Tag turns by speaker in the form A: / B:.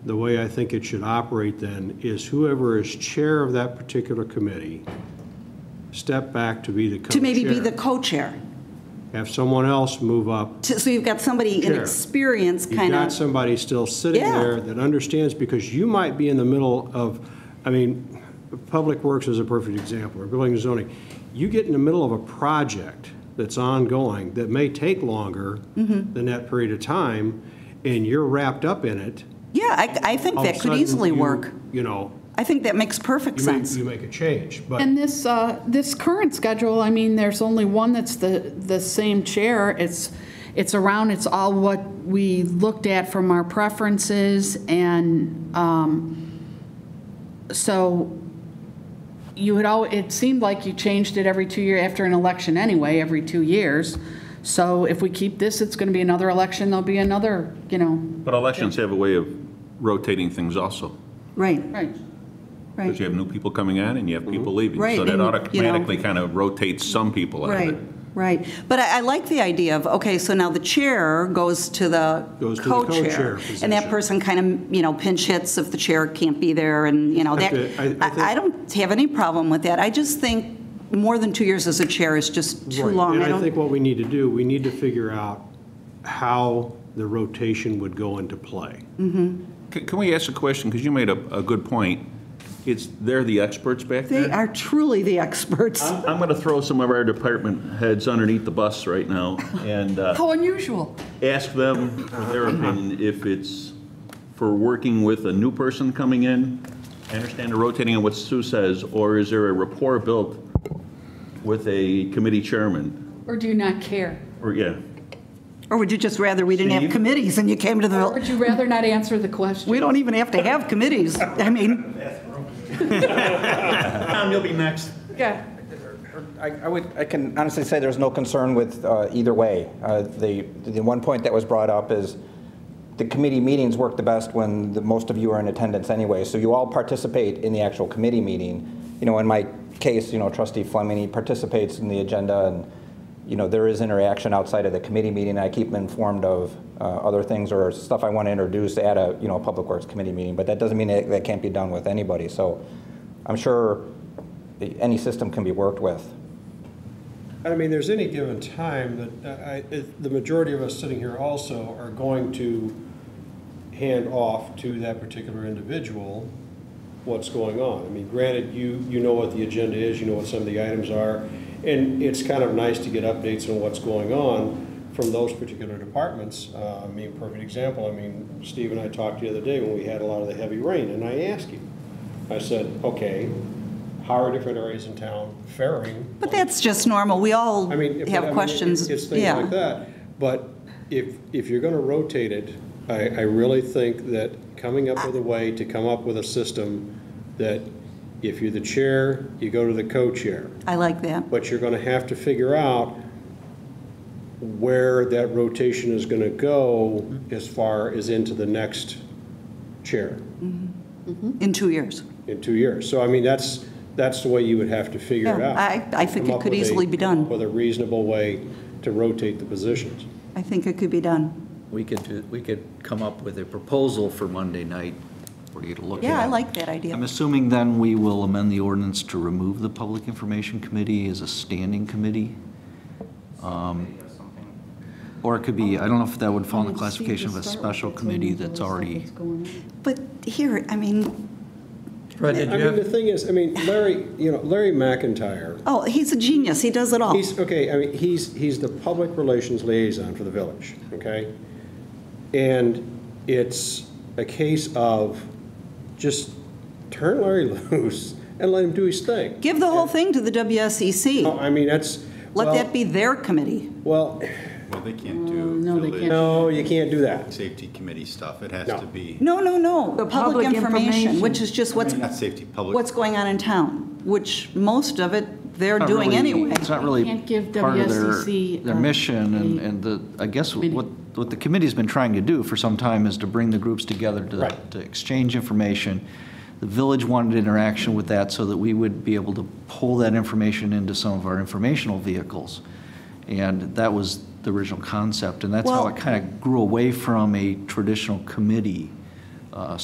A: the way I think it should operate then is whoever is chair of that particular committee, step back to be the co-chair.
B: to maybe be the co-chair.
A: Have someone else move up.
B: To- So you've got somebody in
A: Chair.
B: experience,
A: You've
B: kind
A: got
B: of,
A: somebody still sitting
B: Yeah.
A: there that understands, because you might be in the middle of, I mean, Public Works is a perfect example, or building and zoning. You get in the middle of a project that's ongoing, that may take longer
B: Mm-hmm.
A: than that period of time, and you're wrapped up in it.
B: yeah, I, I think
A: all of a
B: that could
A: sudden
B: easily
A: you-
B: work.
A: You know,
B: I think that makes perfect
A: you make,
B: sense.
A: you make a change, but.
C: And this, uh, this current schedule, I mean, there's only one that's the, the same chair. It's, it's around, it's all what we looked at from our preferences, and um, so you had al, it seemed like you changed it every two year, after an election anyway, every two years. So if we keep this, it's going to be another election, there'll be another, you know,
D: But elections have a way of rotating things also,
B: Right,
C: right.
B: right. Mm-hmm.
D: because you have new people coming on and you have people leaving.
B: Right,
D: So that
B: and, you know-
D: automatically kind of rotates some people out of
B: Right,
D: it.
B: right. But I, I like the idea of, okay, so now the chair goes to the
A: Goes to the co-chair
B: co-chair. And
A: position.
B: that person kind of, you know, pinch hits if the chair can't be there and, you know, that,
A: Okay, I- I think-
B: I, I don't have any problem with that. I just think more than two years as a chair is just too
A: Right,
B: long.
A: And I
B: don't-
A: think what we need to do, we need to figure out how the rotation would go into play.
D: Can can we ask a question? Because you made a, a good point. It's, they're the experts back there.
B: They are truly the experts.
D: I'm I'm going to throw some of our department heads underneath the bus right now and uh,
C: How unusual.
D: ask them for their opinion if it's for working with a new person coming in. I understand the rotating on what Sue says, or is there a rapport built with a committee chairman?
C: Or do you not care?
D: Or, yeah,
B: Or would you just rather we didn't have
D: Steve?
B: committees and you came to the,
C: Or would you rather not answer the question?
B: we don't even have to have committees. I mean,
E: Tom, you'll be next.
C: Yeah.
F: I I would, I can honestly say there's no concern with uh, either way. Uh, The, the one point that was brought up is the committee meetings work the best when the most of you are in attendance anyway, so you all participate in the actual committee meeting. You know, in my case, you know, trustee Fleming, he participates in the agenda and, you know, there is interaction outside of the committee meeting. I keep him informed of uh, other things or stuff I want to introduce at a, you know, Public Works Committee meeting, but that doesn't mean that that can't be done with anybody. So I'm sure the- any system can be worked with.
A: I mean, there's any given time that uh, I, it- the majority of us sitting here also are going to hand off to that particular individual what's going on. I mean, granted, you, you know what the agenda is, you know what some of the items are, and it's kind of nice to get updates on what's going on from those particular departments. Uh, I mean, perfect example, I mean, Steve and I talked the other day when we had a lot of the heavy rain, and I asked him, I said, okay, how are different areas in town faring?
B: but
A: on
B: that's just normal. We all
A: I mean, if- I mean,
B: have
A: it-
B: questions.
A: It's things
B: Yeah.
A: like that. But if, if you're going to rotate it, I, I really think that coming up with a way to come up with a system that if you're the chair, you go to the co-chair.
B: I like that.
A: But you're going to have to figure out where that rotation is going to go as far as into the next chair
B: In two years.
A: in two years. So I mean, that's, that's the way you would have to figure it
B: Yeah,
A: out.
B: I- I think
A: Come
B: it
A: up
B: could
A: with a-
B: easily be
A: come up
B: done.
A: With a reasonable way to rotate the positions.
B: I think it could be done.
G: We could, do- we could come up with a proposal for Monday night for you to look at.
B: Yeah, I like that idea.
G: I'm assuming then we will amend the ordinance to remove the Public Information Committee as a standing committee? Um, Or it could be, I don't know if that would fall in the classification of a special committee that's already,
B: But here, I mean,
G: Right,
A: I mean, the thing is, I mean, Larry, you know, Larry McIntyre,
B: oh, he's a genius. He does it all.
A: he's, okay, I mean, he's, he's the public relations liaison for the village, okay? And it's a case of just turn Larry loose and let him do his thing.
B: Give the whole thing to the
A: No,
B: WSEC.
A: I mean, that's,
B: Let that
A: Oh, well,
B: be their committee.
A: well,
H: Well, they can't
B: Mm,
H: do
C: no, they
H: village
C: can't.
A: no, you can't do that.
H: safety committee stuff. It has
A: No.
H: to be,
B: No, no, no.
I: The
B: Public
I: public
B: information,
I: information.
B: which is just what's,
H: not safety, public.
B: what's going on in town, which most of it they're
G: not
B: doing
G: really-
B: anyway.
G: It's not really
C: Can't give
G: part of
C: WSCC,
G: their, their
C: um,
G: mission, and,
C: a
G: and the, I guess
C: committee.
G: what, what the committee's been trying to do for some time is to bring the groups together to,
A: Right.
G: to exchange information. The village wanted interaction with that so that we would be able to pull that information into some of our informational vehicles. And that was the original concept, and that's how
B: Well-
G: it kind of grew away from a traditional committee uh,